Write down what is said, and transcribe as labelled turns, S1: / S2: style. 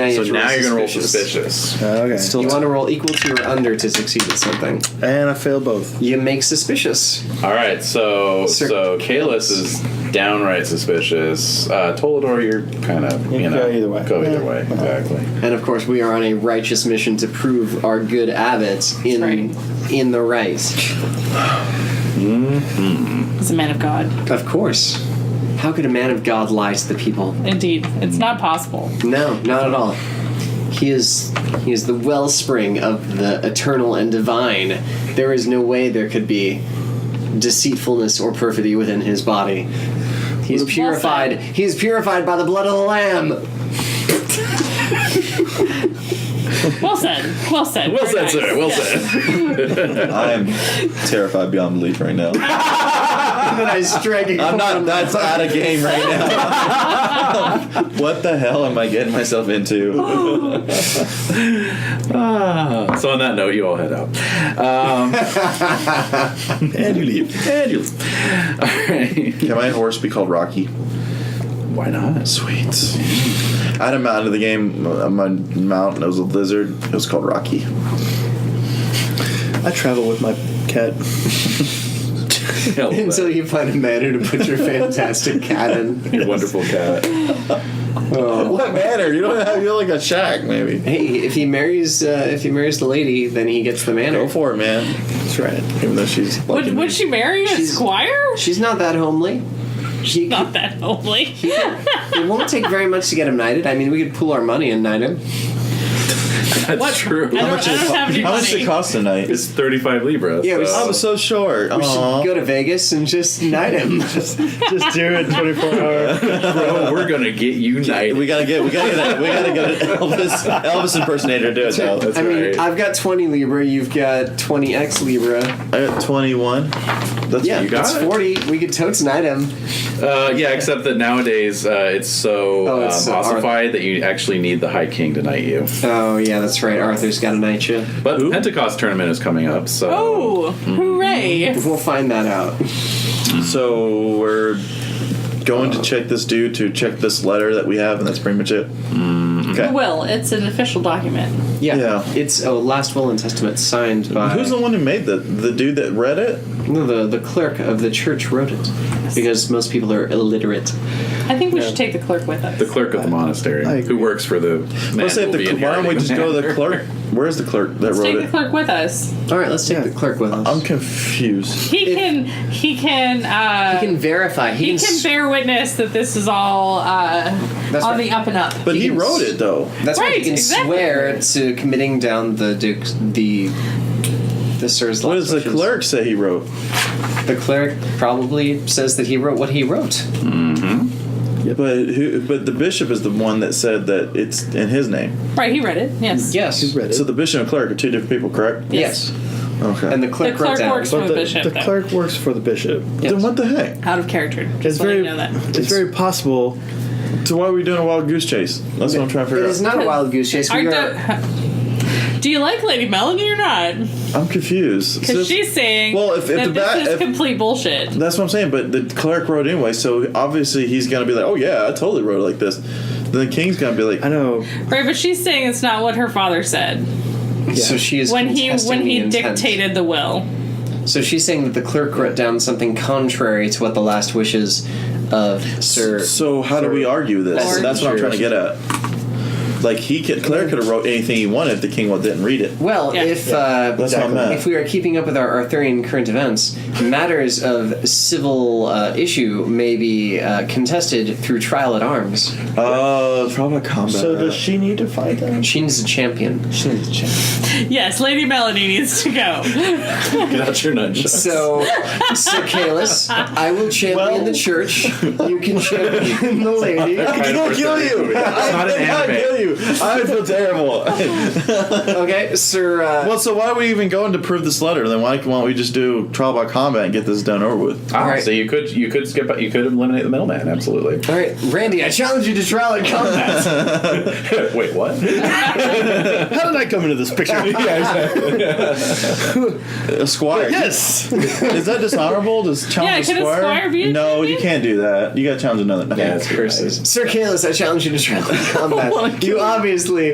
S1: Now you
S2: So
S1: have to
S2: now you're gonna roll
S1: suspicious.
S3: Uh,
S2: suspicious.
S4: Okay.
S1: You want to roll equal to or under to succeed at something.
S4: and I fail both.
S1: You make suspicious.
S2: All right, so
S1: Sir-
S2: so Kalis is downright suspicious. Uh, Tolador, you're kind of you,
S4: You
S2: know
S4: go either way.
S2: Go either
S4: Yeah.
S2: way, exactly.
S1: And of course, we are on a righteous mission to prove our good abbot in
S5: Right.
S1: in the right.
S5: He's a man of God.
S1: Of course. How could a man of God lie to the people?
S5: Indeed, it's not possible.
S1: No, not at all. He is he is the wellspring of the eternal and divine. There is no way there could be deceitfulness or perfidy within his body. He's purified.
S5: said.
S1: He is purified by the blood of the lamb.
S5: Well said. Well said.
S2: Well
S5: Very
S2: said,
S5: nice.
S2: sir. Well
S5: Yeah.
S2: said.
S3: I am terrified beyond belief right now.
S1: And then I strike it
S3: I'm not. That's out of game right now. what the hell am I getting myself into?
S2: Ah, so on that note, you all head out. Um,
S3: And you leave.
S2: and you- all right.
S3: Can my horse be called Rocky?
S2: Why not?
S3: Sweet. I had a mount in the game. uh, My mount it was a lizard. It was called Rocky.
S4: I travel with my cat.
S2: Hell,
S1: Until you find a manner to put your fantastic cat in.
S2: your wonderful cat.
S3: What manner? You don't have. You're like a shack, maybe.
S1: Hey, if he marries, uh, if he marries the lady, then he gets the
S3: Go
S1: manor.
S3: for it, man.
S4: That's right.
S3: Even though she's
S5: Would,
S3: liking
S5: would
S3: me.
S5: she marry a
S1: She's-
S5: squire?
S1: She's not that homely. She
S5: Not that homely.
S1: It won't take very much to get him knighted. I mean, we could pool our money and knight him.
S2: That's
S5: What?
S2: true.
S5: I don't, I don't have any
S3: How much
S5: money.
S3: did it cost tonight?
S2: It's 35 libras.
S1: Yeah, we
S2: so-
S3: I'm so short.
S1: We should
S3: Aw.
S1: go to Vegas and just knight him.
S4: Just do it 24 hours.
S2: Bro, we're gonna get united.
S3: We gotta get. We gotta get. A, we gotta get an Elvis Elvis impersonator to do it though.
S2: That's
S1: I mean,
S2: right.
S1: I've got 20 Libra, you've got 20x Libra.
S3: I got 21. That's
S1: Yeah,
S3: what you got.
S1: that's
S2: got it.
S1: 40. We could totes knight him.
S2: Uh, yeah, except that nowadays uh, it's so
S1: Oh, it's so
S2: um, ossified that you actually need the High King to knight you.
S1: Oh, yeah, that's right. Arthur's got a knight you.
S2: But the Pentecost tournament is coming up, so
S5: Oh, hooray.
S1: We'll find that out.
S3: So we're going to check this dude to check this letter that we have, and that's pretty much it. Okay.
S5: Will, it's an official document.
S1: Yeah.
S3: Yeah.
S1: It's a last will and testament signed by
S3: Who's the one who made the the dude that read it?
S1: No, the, the clerk of the church wrote it. Because most people are illiterate.
S5: I think we should take the clerk with us.
S2: the clerk of the monastery
S4: I agree.
S2: who works for the. Man
S3: Let's say
S2: who
S3: if
S2: will be
S3: the, why don't we
S2: inheriting
S3: just go to the
S2: manor.
S3: clerk? Where's the clerk that
S5: Let's
S3: wrote
S5: take the
S3: it?
S5: clerk with us.
S1: All right, let's take
S4: Yeah.
S1: the clerk with us.
S3: I'm confused.
S5: He
S1: If-
S5: can. He can. Uh,
S1: he can verify. He,
S5: he
S1: can.
S5: can
S1: s-
S5: bear witness that this is all uh,
S1: That's
S5: on
S1: right.
S5: the up and up.
S3: But
S1: He
S3: he
S1: can
S3: wrote
S1: s-
S3: it though.
S1: That's right.
S5: Right,
S1: He can
S5: exactly.
S1: swear to committing down the duke, the the sir's.
S3: What does the
S1: wishes.
S3: clerk say he wrote?
S1: The cleric probably says that he wrote what he wrote.
S3: But who? But the bishop is the one that said that it's in his name.
S5: Right, he read it. Yes.
S1: Yes.
S4: He's read it.
S3: So the bishop and clerk are two different people, correct?
S1: Yes.
S3: Okay.
S1: And the
S5: The
S1: clerk, wrote
S5: clerk
S1: down.
S5: works for
S4: but
S5: the,
S4: the,
S5: bishop.
S4: the
S5: though.
S4: clerk works for the bishop.
S1: Yes.
S3: then what the heck?
S5: out of character.
S4: It's
S5: Just let
S4: very,
S5: you know that.
S4: it's very possible.
S3: So why are we doing a wild goose chase? That's what I'm trying to
S1: It
S3: figure
S1: is
S3: out.
S1: not a wild goose chase. We
S5: Aren't
S1: are,
S5: the- do you like Lady Melanie or not?
S3: I'm confused. So
S5: Because she's saying
S3: Well, if- if
S5: that
S3: the ba-
S5: this is
S3: if-
S5: complete bullshit.
S3: that's what I'm saying. But the clerk wrote anyway, so obviously he's gonna be like, "Oh yeah, I totally wrote it like this." Then the king's gonna be like,
S4: I know.
S5: Right, but she's saying it's not what her father said
S1: so she is
S5: when he
S1: contesting
S5: when he
S1: the intent.
S5: dictated the will.
S1: So she's saying that the clerk wrote down something contrary to what the last wishes of Sir.
S3: "So how do we argue this?"
S5: Lord.
S3: That's what I'm trying to get at. Like he could, clerk could have wrote anything he wanted if the king didn't read it.
S1: well,
S5: Yeah.
S1: if uh,
S3: That's what I meant.
S1: if we are keeping up with our Arthurian current events, matters of civil uh, issue may be uh, contested through trial at arms.
S3: Uh, probably combat.
S4: So does she need to fight them?
S1: She needs a champion.
S4: She needs to check.
S5: Yes, Lady Melanie needs to go.
S2: Get out your nunchucks.
S1: So, Sir Kalis, I will champion
S4: Well-
S1: the church. You can champion the lady.
S3: I will kill you.
S2: It's not an
S3: I
S2: anime.
S3: kill you. I would feel terrible.
S1: Okay, Sir. Uh,
S3: well, so why are we even going to prove this letter? Then why why don't we just do trial by combat and get this done over with?
S2: Ah,
S1: Alright.
S2: So you could you could skip you could eliminate the middleman absolutely.
S1: all right, Randy, I challenge you to trial and combat.
S2: Wait, what?
S4: How did I come into this picture?
S3: A squire.
S4: yes.
S3: Is that dishonorable? Does challenge
S5: Yeah,
S3: a
S5: can a
S3: squire?
S5: squire be a
S3: no,
S5: champion?
S3: you can't do that. You got to challenge another.
S2: Yeah, it's
S1: Curses. Sir Kalis, I challenge you to trial and combat. you obviously